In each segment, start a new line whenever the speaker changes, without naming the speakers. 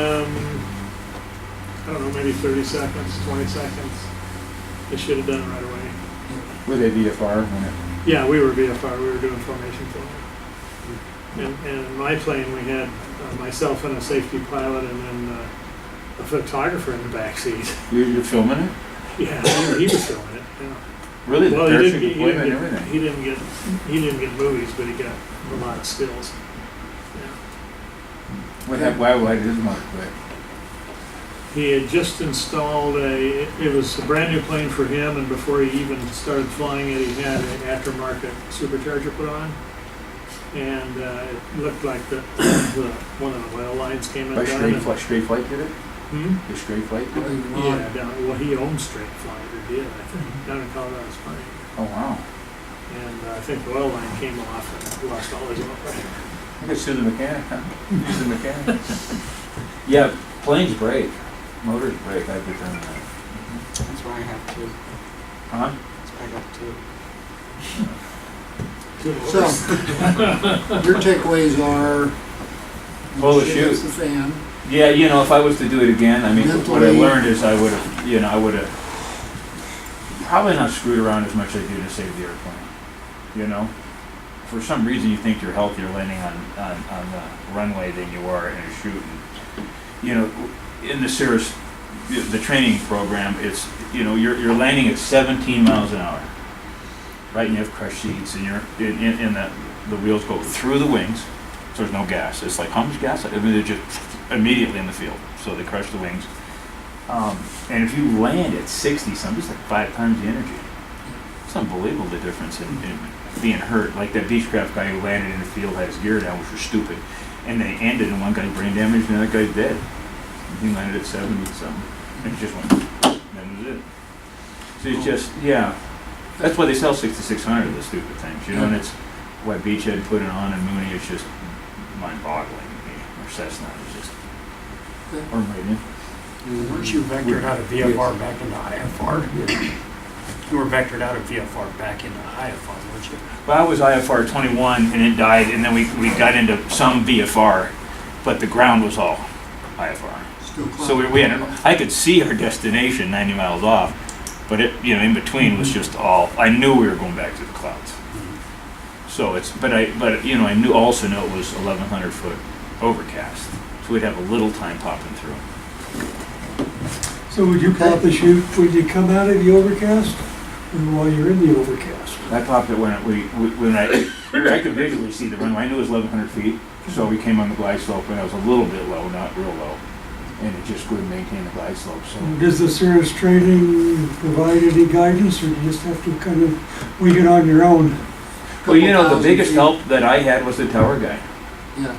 um, I don't know, maybe 30 seconds, 20 seconds. They should have done it right away.
With AVFR, when it
Yeah, we were VFR, we were doing formation flying. And, and in my plane, we had uh, myself and a safety pilot and then uh, a photographer in the backseat.
You, you're filming it?
Yeah, he, he was filming it, yeah.
Really? The
Well, he didn't, get-
parachute
he
deployment and
didn't get,
everything?
he didn't get, he didn't get movies, but he got a lot of skills.
What happened, why, why did his mock quit?
He had just installed a, it was a brand new plane for him, and before he even started flying it, he had an aftermarket supercharger put on. And uh, it looked like the, the, one of the oil lines came
By
undone.
straight
and-
flight, straight flight did it?
Hmm?
The straight flight did it?
Yeah, down, well, he owned straight flight, or did, I
Hmm.
think, down in Colorado Springs.
Oh, wow.
And uh, I think the oil line came off and lost all his oil.
I could sue the mechanic, huh? Sue the mechanic.
Yeah, planes break.
Motors break, I've determined that.
That's why I have two. That's
Huh?
why I got two.
So, your takeaways are.
Full of
shit
Oh, shoot.
hits the fan.
Yeah, you know, if I was to do it again, I mean, what I
Mentally-
learned is I would have, you know, I would have probably not screwed around as much as I do to save the airplane. You know, for some reason you think you're healthier landing on, on, on the runway than you are in a chute. And, You know, in the Cirrus, the the training program, it's, you know, you're, you're landing at 17 miles an hour. Right, and you have crush seats, and you're, and, and, and the, the wheels go through the wings, so there's no gas. It's like, how much gas? I mean, they're just immediately in the field, so they crush the wings. Um, and if you land at 60 something, it's like five times the energy. It's unbelievable the difference in, in being hurt. Like that Beechcraft guy who landed in the field had his gear down, which was stupid. And they ended, and one guy brain damaged, and the other guy dead. He landed at 70 something, and it just went, that was it. So it's just, yeah. That's why they sell 6600 of the stupid things, you know, and it's why Beachhead put it on and Mooney is just mind boggling to me, or Cessna is just, or Meridian.
Weren't you vectored out of VFR back into IFR? You were vectored out of VFR back into IFR, weren't you?
Well, I was IFR 21 and it died, and then we, we got into some VFR, but the ground was all IFR.
Still
So we, we had, I could see our destination 90 miles off, but it, you know, in between was just all, I knew we were going back to the clouds. So it's, but I, but, you know, I knew, also knew it was 1,100 foot overcast, so we'd have a little time popping through.
So would you pop the chute when you come out of the overcast or while you're in the overcast?
I popped it when it- we, we- when I, I could visually see the runway. I knew it was eleven hundred feet, so we came on the glide slope, and I was a little bit low, not real low, and it just wouldn't maintain the glide slope. So
Does the Cirrus training provide any guidance or do you just have to kind of wing it on your own?
well, you know, the
Couple
biggest
thousand
help that I had was the tower guy,
feet, Yeah.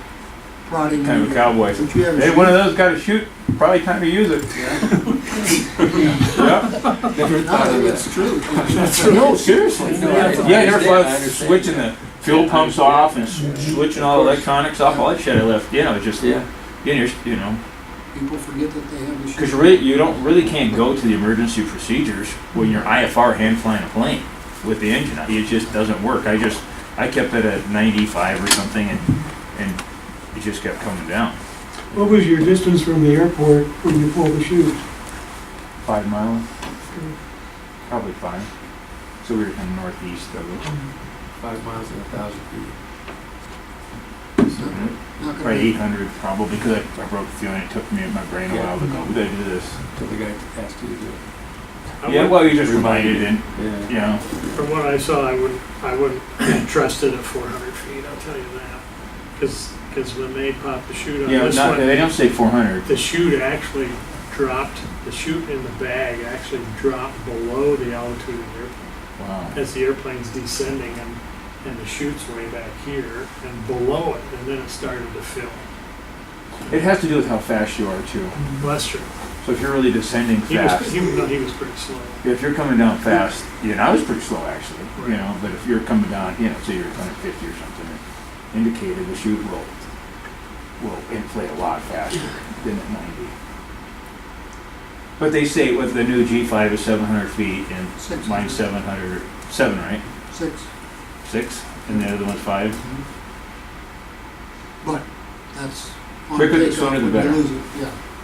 Prodding.
kind of a
you.
cowboy.
Would you ever
Hey,
shoot-
one of those got to shoot. Probably time to use it. Yeah.
Never
No, I
thought of
think
that.
it's true.
No, seriously.
No, I-
yeah, I never thought
I
of
understand.
switching the fuel pumps off and s- switching all electronics off. All that shit I left. You know, it just
Yeah.
you know, you know.
People forget that they have to shoot.
Because really, you don't really can't go to the emergency procedures when you're IFR hand flying a plane with the engine. on. It just doesn't work. I just I kept it at 95 or something, and and it just kept coming down.
What was your distance from the airport when you pulled the chute?
Five miles, probably five. So we were kind of northeast of it,
Five miles and a thousand feet.
It's not-
Mm-hmm.
not gonna
probably
be-
800 probably because I, I broke the feeling. It took me my brain a while to go. We gotta do this.
Till the guy asked you to do it.
I
Yeah,
wouldn't-
well, you just reminded and
Yeah.
you know.
From what I saw, I wouldn't, I wouldn't trust it at 400 feet, I'll tell you that. Because, when they popped the chute on
Yeah,
this
not,
one,
they don't say 400.
the chute actually dropped, the chute in the bag actually dropped below the altitude of the airplane.
Wow.
As the airplane's descending and, and the chute's way back here and below it, and then it started to fill.
It has to do with how fast you are too.
Western,
So if you're really descending
he was,
fast,
he, was- no, he was pretty slow.
if you're coming down fast, you know, I was pretty slow actually,
Right.
you know, but if you're coming down, you know, say you're 150 or something, it indicated the chute will, will inflate a lot faster than at 90. But they say with the new G5 is 700 feet and
Six.
mine's 700, seven, right?
Six,
Six? And the other one's five?
but that's on
Quicker the
pickup
sooner the
when you
better.
lose it, Yeah,